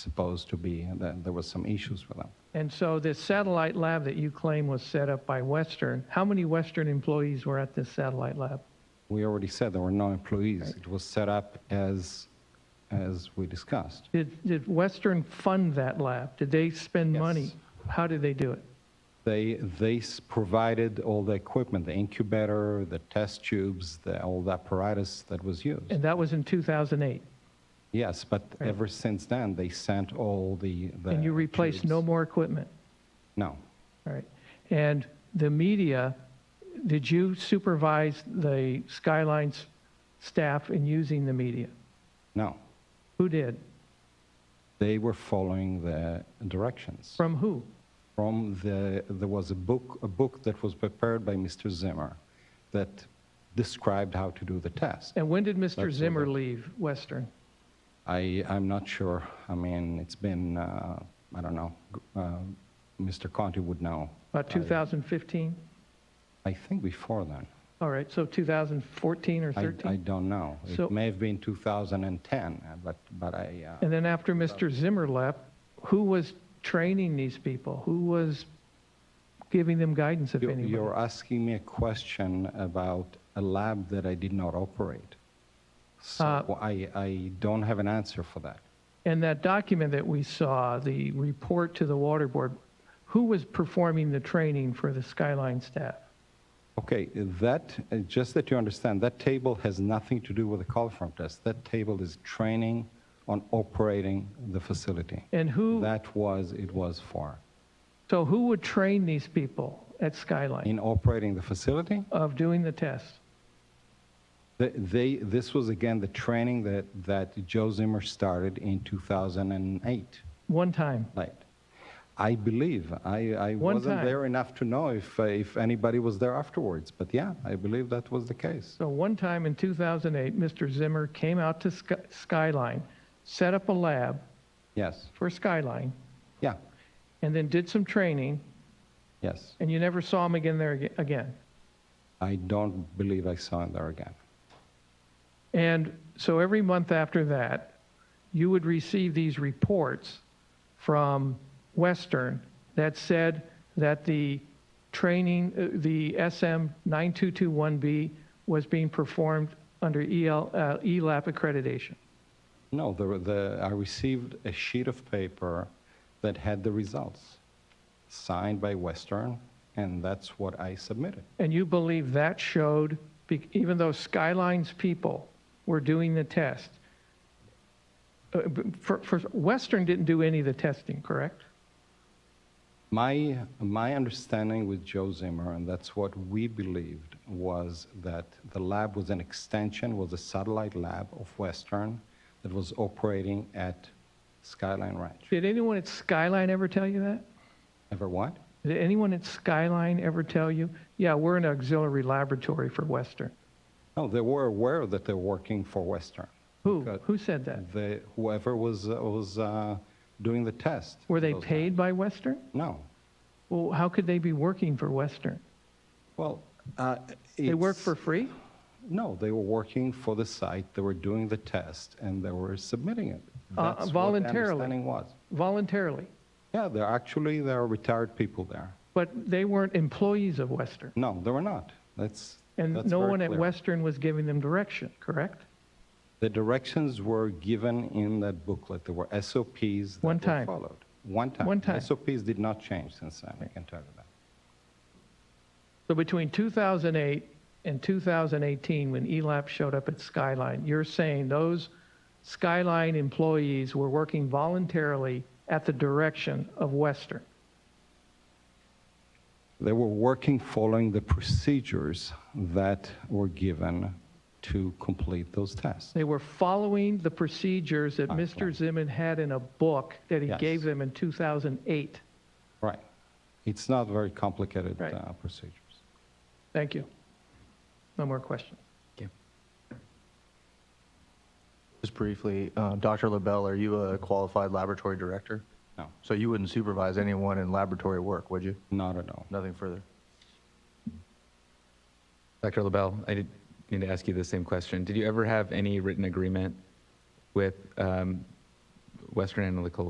supposed to be, and then there was some issues with them. And so this satellite lab that you claim was set up by Western, how many Western employees were at this satellite lab? We already said there were no employees. It was set up as, as we discussed. Did, did Western fund that lab? Did they spend Yes. money? How did they do it? They, they s- provided all the equipment, the incubator, the test tubes, the, all the apparatus that was used. And that was in 2008. Yes, but ever since then, they sent all the. the And you replaced tubes. no more equipment? No. All right. And the media, did you supervise the Skyline's staff in using the media? No. Who did? They were following the directions. From who? From the, there was a book, a book that was prepared by Mr. Zimmer that described how to do the test. And when did That's all Mr. Zimmer that- leave Western? I, I'm not sure. I mean, it's been, uh, I don't know, g- uh, Mr. Conti would know. About 2015? I think before then. All right, so 2014 or I, I 13? don't know. So- It may have been 2010, uh, but, but I, uh, And then after Mr. Zimmer left, who was training these people? Who was giving them guidance, if you- anyone? you're asking me a question about a lab that I did not operate. So Uh, I, I don't have an answer for that. And that document that we saw, the report to the water board, who was performing the training for the Skyline staff? Okay, that, uh, just that you understand, that table has nothing to do with the coliform test. That table is training on operating the facility. And who, That was, it was for. so who would train these people at Skyline In operating the facility, of doing the test? th- they, this was again the training that, that Joe Zimmer started in 2008, One time. right? I believe, I, I One wasn't time. there enough to know if, uh, if anybody was there afterwards, but yeah, I believe that was the case. So one time in 2008, Mr. Zimmer came out to Sky- Skyline, set up a lab Yes, for Skyline, yeah, and then did some training, yes. and you never saw him again there ag- again. I don't believe I saw him there again. And so every month after that, you would receive these reports from Western that said that the training, uh, the SM 9221B was being performed under EL, uh, ELAP accreditation. No, the, the, I received a sheet of paper that had the results, signed by Western, and that's what I submitted. And you believe that showed, be- even though Skyline's people were doing the test, uh, b- for, for Western didn't do any of the testing, correct? My, my understanding with Joe Zimmer, and that's what we believed, was that the lab was an extension, was a satellite lab of Western that was operating at Skyline Ranch. Did anyone at Skyline ever tell you that? Ever what? Did anyone at Skyline ever tell you, yeah, we're an auxiliary laboratory for Western? No, they were aware that they're working for Western. Who, Because who said that? the- whoever was, was uh, doing the test. Were they Those- paid by Western? No, Well, how could they be working for Western? Well, uh, They work it's- for free? No, they were working for the site. They were doing the test and they were submitting it. Uh, That's What the voluntarily. understanding was. Voluntarily? Yeah, they're actually there are retired people there. But they weren't employees of Western? No, they were not. That's And that's no very one at clear. Western was giving them direction, correct? The directions were given in that booklet. There were SOPs that One were time. followed. One time. One time. SOPs did not change since then. I can tell you that. So between 2008 and 2018, when E ELAP showed up at Skyline, you're saying those Skyline employees were working voluntarily at the direction of Western? They were working following the procedures that were given to complete those tests. They were following the procedures that Mr. Zimmern had in a book that he Yes. gave them in 2008. Right. It's not very complicated Right. uh, procedures. Thank you. No more questions. Just briefly, uh, Dr. LaBelle, are you a qualified laboratory director? No, So you wouldn't supervise anyone in laboratory work, would you? not at all. Nothing further. Dr. LaBelle, I did need to ask you the same question. Did you ever have any written agreement with um, Western Analytical